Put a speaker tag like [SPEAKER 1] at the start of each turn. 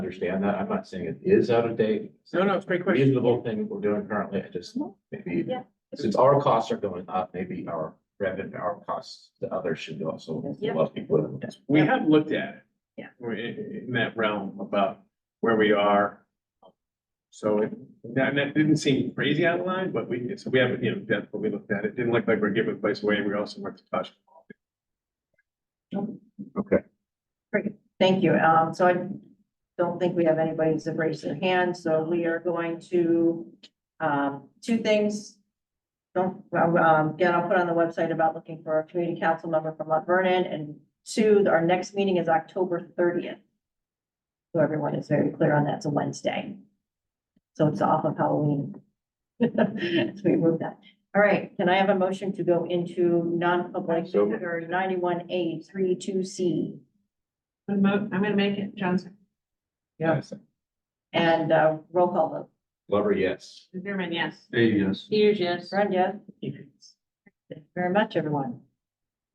[SPEAKER 1] understand that. I'm not saying it is out of date.
[SPEAKER 2] No, no, it's a great question.
[SPEAKER 1] Reasonable thing we're doing currently. I just, maybe,
[SPEAKER 3] Yeah.
[SPEAKER 1] since our costs are going up, maybe our revenue, our costs, the others should also.
[SPEAKER 3] Yeah.
[SPEAKER 1] Well, people.
[SPEAKER 2] We have looked at it.
[SPEAKER 3] Yeah.
[SPEAKER 2] We're in, in that realm about where we are. So it- that, that didn't seem crazy out of line, but we, so we haven't, you know, that's what we looked at. It didn't look like we're giving place away. We also weren't touched.
[SPEAKER 3] Thank you. Um, so I don't think we have anybody who's raised their hand, so we are going to, um, two things. Don't, well, um, again, I'll put on the website about looking for a community council member from Mount Vernon, and two, our next meeting is October thirtieth. So everyone is very clear on that, it's a Wednesday. So it's off of Halloween. So we moved that. All right, can I have a motion to go into non-public
[SPEAKER 1] So moved.
[SPEAKER 3] or ninety-one A three two C?
[SPEAKER 4] I'm gonna- I'm gonna make it Johnson,
[SPEAKER 1] Yes.
[SPEAKER 3] And uh, roll call vote.
[SPEAKER 1] Lover, yes.
[SPEAKER 4] Zimmerman, yes.
[SPEAKER 1] Yes.
[SPEAKER 4] Hughes, yes.
[SPEAKER 3] Brenda? Thank you very much, everyone.